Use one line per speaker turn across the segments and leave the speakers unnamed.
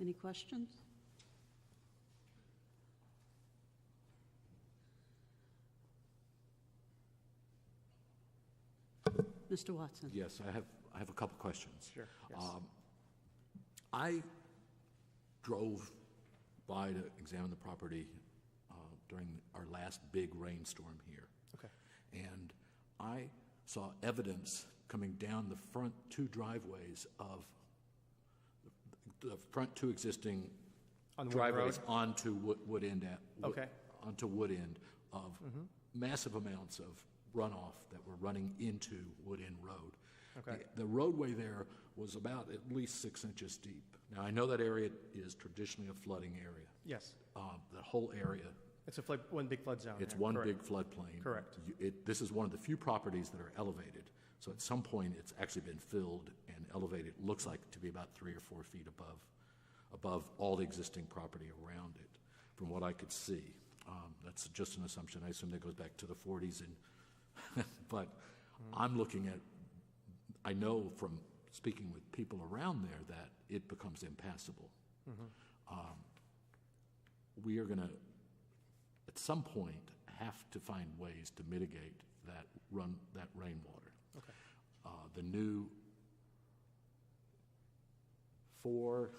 Any questions? Mr. Watson?
Yes, I have, I have a couple questions.
Sure, yes.
Um, I drove by to examine the property uh, during our last big rainstorm here.
Okay.
And I saw evidence coming down the front two driveways of, the front two existing
On Wood
driveways
Road?
onto Wood Wood End. at- Wood-
Okay. Mm-hmm.
Onto Wood End of massive amounts of runoff that were running into Wood End Road.
Okay.
The- The roadway there was about at least six inches deep. Now, I know that area is traditionally a flooding area.
Yes,
Uh, The whole area
it's a flood, one big flood zone.
it's
there,
one
correct.
big floodplain.
Correct.
You- It, this is one of the few properties that are elevated, so at some point, it's actually been filled and elevated, looks like to be about three or four feet above, above all the existing property around it, from what I could see. Um, that's just an assumption, I assume that goes back to the forties and, but
Mm.
I'm looking at, I know from speaking with people around there that it becomes impassable.
Mm-hmm.
Um, We are gonna, at some point, have to find ways to mitigate that run, that rainwater.
Okay.
Uh, The new four.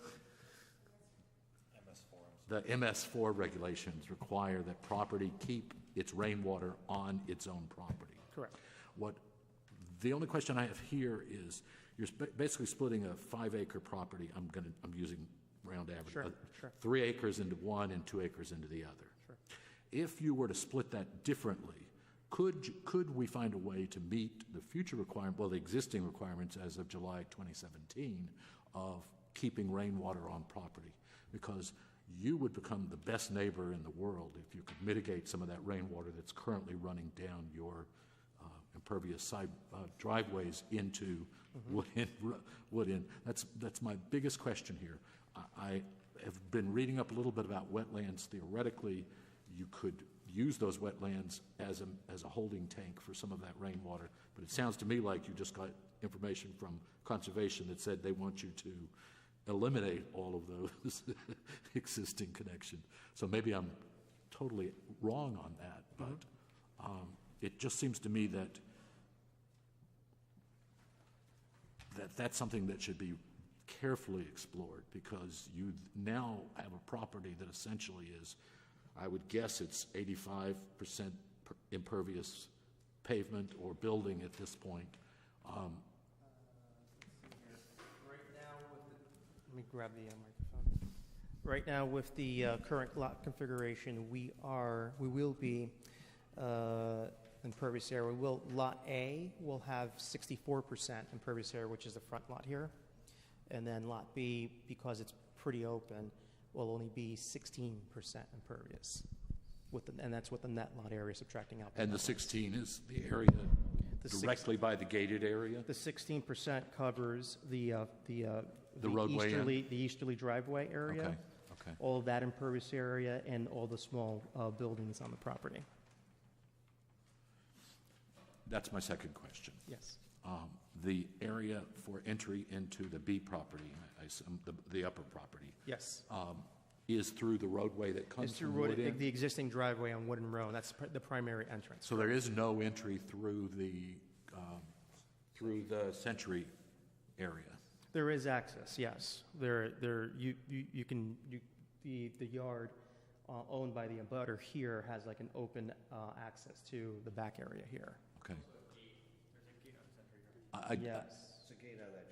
MS4. The MS4 regulations require that property keep its rainwater on its own property.
Correct.
What, the only question I have here is, you're sp- basically splitting a five-acre property, I'm going to, I'm using round average.
Sure,
uh,
sure.
Three acres into one and two acres into the other. If you were to split that differently, could, you- could we find a way to meet the future requirement, well, the existing requirements as of July 2017 of keeping rainwater on property? Because you would become the best neighbor in the world if you could mitigate some of that rainwater that's currently running down your uh, impervious side uh, driveways into Woodin, Ro- Woodin. That's, that's my biggest question here. I- I have been reading up a little bit about wetlands. Theoretically, you could use those wetlands as a, as a holding tank for some of that rainwater, but it sounds to me like you just got information from conservation that said they want you to eliminate all of those existing connections. So maybe I'm totally wrong on that, but um, it just seems to me that, that that's something that should be carefully explored, because you now have a property that essentially is, I would guess it's eighty-five percent impervious pavement or building at this point. Um,
Let me grab the uh, microphone. Right now, with the uh, current lot configuration, we are, we will be uh, impervious area. We will, Lot A will have 64% impervious area, which is the front lot here. And then Lot B, because it's pretty open, will only be 16% impervious. With, the- and that's with the net lot area subtracting out. the
And
net
the
lot.
sixteen is the area
The six-
directly by the gated area?
The 16% covers the, uh, the, uh, the
roadway end?
easterly, the easterly driveway area.
Okay, okay.
All of that impervious area and all the small uh, buildings on the property.
That's my second question.
Yes.
um, the area for entry into the B property, I assume, the, the upper property,
Yes.
um, is through the roadway that
It's
comes
through
from
Wood-
Wood
the
End?
existing driveway on Wooden Row, that's pr- the primary entrance.
So there is no entry through the, um, through the Century area?
There is access, yes. There, there, you, you you can, you, the, the yard uh, owned by the abutter here has like an open uh, access to the back area here.
Okay. I- I-
Yes.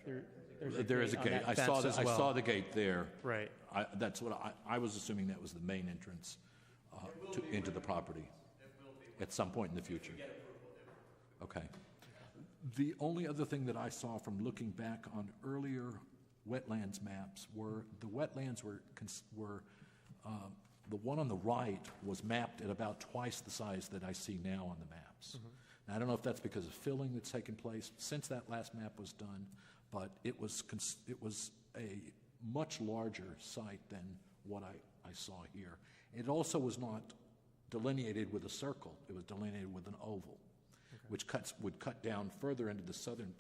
There- there's a gate out of that
There is a gate. I saw,
fence
the-
as
I
well.
saw the gate there.
Right.
I, that's what, I, I was assuming that was the main entrance uh, to, into the property. At some point in the future. Okay. The only other thing that I saw from looking back on earlier wetlands maps were, the wetlands were, cons- were, um, the one on the right was mapped at about twice the size that I see now on the maps. Now, I don't know if that's because of filling that's taken place since that last map was done, but it was, cons- it was a much larger site than what I, I saw here. It also was not delineated with a circle, it was delineated with an oval which cuts, would cut down further into the southern